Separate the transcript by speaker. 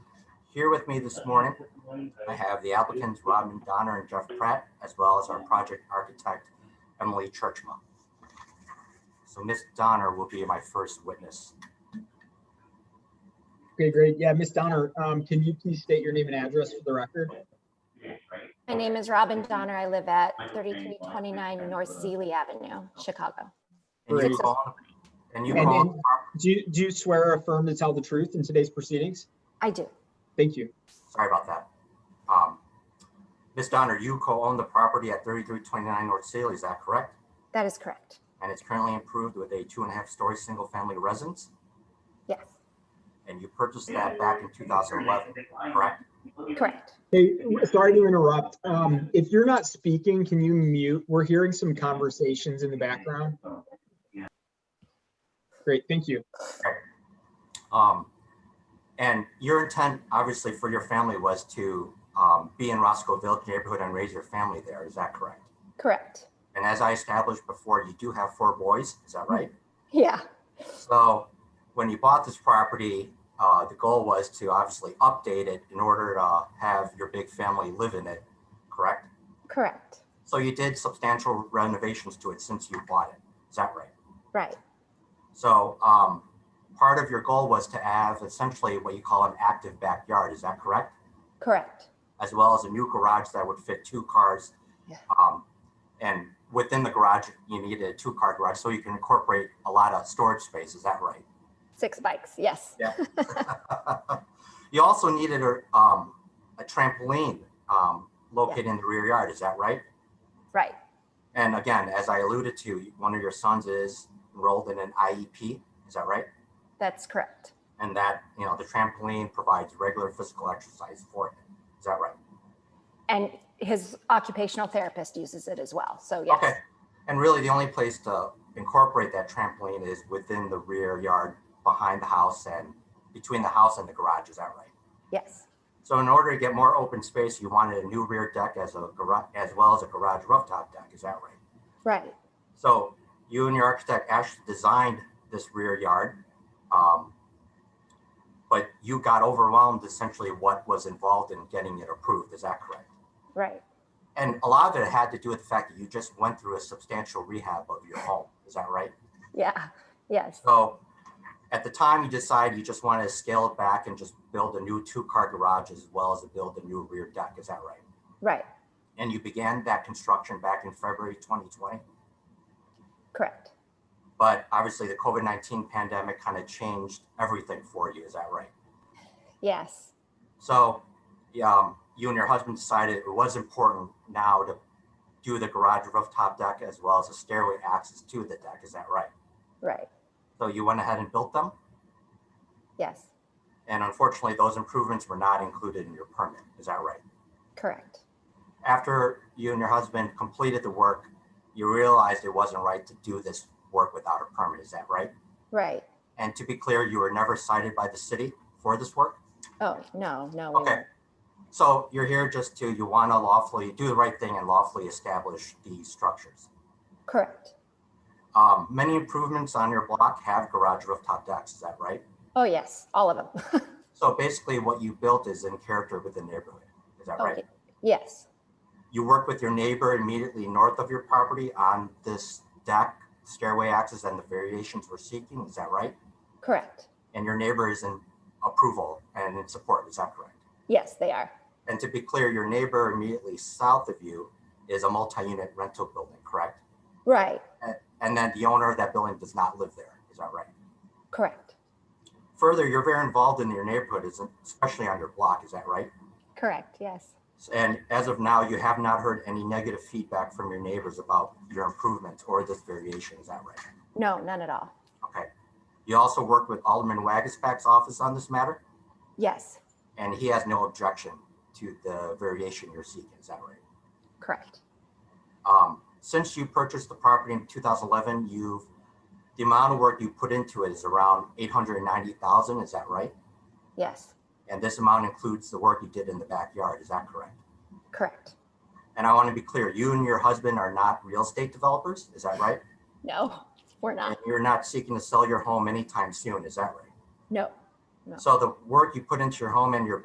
Speaker 1: Here with me this morning, I have the applicants Robin Donner and Jeff Pratt, as well as our project architect Emily Churchma. So Ms. Donner will be my first witness.
Speaker 2: Okay, great. Yeah, Ms. Donner, um, can you please state your name and address for the record?
Speaker 3: My name is Robin Donner. I live at 3329 North Sealy Avenue, Chicago.
Speaker 1: And you
Speaker 2: Great.
Speaker 1: call, and you
Speaker 2: And
Speaker 1: call,
Speaker 2: Do you, do you swear or affirm to tell the truth in today's proceedings?
Speaker 3: I do.
Speaker 2: Thank you.
Speaker 1: sorry about that. Um, Ms. Donner, you co-own the property at 3329 North Saley, is that correct?
Speaker 3: That is correct.
Speaker 1: And it's currently improved with a two and a half story single family residence?
Speaker 3: Yes,
Speaker 1: And you purchased that back in 2011, correct?
Speaker 3: correct.
Speaker 2: Hey, sorry to interrupt. Um, if you're not speaking, can you mute? We're hearing some conversations in the background. Great, thank you.
Speaker 1: Um, And your intent, obviously, for your family was to um, be in Roscoe Village neighborhood and raise your family there, is that correct?
Speaker 3: Correct.
Speaker 1: And as I established before, you do have four boys, is that right?
Speaker 3: Yeah,
Speaker 1: So when you bought this property, uh, the goal was to obviously update it in order to have your big family live in it, correct?
Speaker 3: correct.
Speaker 1: So you did substantial renovations to it since you bought it, is that right?
Speaker 3: Right.
Speaker 1: So um, part of your goal was to have essentially what you call an active backyard, is that correct?
Speaker 3: Correct.
Speaker 1: As well as a new garage that would fit two cars.
Speaker 3: Yeah.
Speaker 1: Um, And within the garage, you needed a two-car garage, so you can incorporate a lot of storage space, is that right?
Speaker 3: Six bikes. Yes.
Speaker 1: You also needed a um, a trampoline um, located in the rear yard, is that right?
Speaker 3: Right.
Speaker 1: And again, as I alluded to, one of your sons is enrolled in an IEP, is that right?
Speaker 3: That's correct.
Speaker 1: and that you know the trampoline provides regular physical exercise for him. Is that right?
Speaker 3: And his occupational therapist uses it as well. So yes.
Speaker 1: Okay. And really, the only place to incorporate that trampoline is within the rear yard, behind the house, and between the house and the garage. Is that right?
Speaker 3: Yes.
Speaker 1: So, in order to get more open space, you wanted a new rear deck as a garage, as well as a garage rooftop deck. Is that right?
Speaker 3: Right.
Speaker 1: So you and your architect actually designed this rear yard. um, But you got overwhelmed essentially what was involved in getting it approved, is that correct?
Speaker 3: Right.
Speaker 1: And a lot of it had to do with the fact that you just went through a substantial rehab of your home, is that right?
Speaker 3: Yeah. Yes.
Speaker 1: So at the time, you decided you just wanted to scale it back and just build a new two-car garage as well as to build a new rear deck, is that right?
Speaker 3: Right.
Speaker 1: And you began that construction back in February 2020?
Speaker 3: Correct.
Speaker 1: but obviously the COVID 19 pandemic kind of changed everything for you. Is that right?
Speaker 3: Yes.
Speaker 1: So, yeah, um, you and your husband decided it was important now to do the garage rooftop deck as well as a stairway access to the deck. Is that right?
Speaker 3: Right.
Speaker 1: So, you went ahead and built them.
Speaker 3: Yes.
Speaker 1: And unfortunately, those improvements were not included in your permit. Is that right?
Speaker 3: Correct.
Speaker 1: After you and your husband completed the work, you realized it wasn't right to do this work without a permit. Is that right?
Speaker 3: Right.
Speaker 1: And to be clear, you were never cited by the city for this work?
Speaker 3: Oh, no, no. we
Speaker 1: Okay.
Speaker 3: won't.
Speaker 1: So you're here just to, you want to lawfully do the right thing and lawfully establish these structures.
Speaker 3: Correct.
Speaker 1: Um, many improvements on your block have garage rooftop decks, is that right?
Speaker 3: Oh, yes, all of them.
Speaker 1: So basically what you built is in character with the neighborhood, is that right?
Speaker 3: Okay. Yes,
Speaker 1: You work with your neighbor immediately north of your property on this deck, stairway access and the variations we're seeking, is that right?
Speaker 3: correct.
Speaker 1: And your neighbor is in approval and in support, is that correct?
Speaker 3: Yes, they are.
Speaker 1: And to be clear, your neighbor immediately south of you is a multi-unit rental building, correct?
Speaker 3: Right,
Speaker 1: and then the owner of that building does not live there. Is that right?
Speaker 3: correct,
Speaker 1: Further, you're very involved in your neighborhood, isn't- especially on your block. Is that right?
Speaker 3: correct. Yes,
Speaker 1: And as of now, you have not heard any negative feedback from your neighbors about your improvements or this variation. Is that right?
Speaker 3: no, none at all.
Speaker 1: Okay. You also worked with Alderman Wagisback's office on this matter,
Speaker 3: Yes,
Speaker 1: and he has no objection to the variation you're seeking. Is that right?
Speaker 3: correct.
Speaker 1: Um, since you purchased the property in 2011, you've the amount of work you put into it is around 890,000. Is that right?
Speaker 3: Yes,
Speaker 1: And this amount includes the work you did in the backyard, is that correct?
Speaker 3: correct.
Speaker 1: And I want to be clear, you and your husband are not real estate developers, is that right?
Speaker 3: No, we're
Speaker 1: And
Speaker 3: not.
Speaker 1: you're not seeking to sell your home anytime soon, is that right?
Speaker 3: No.
Speaker 1: So the work you put into your home and your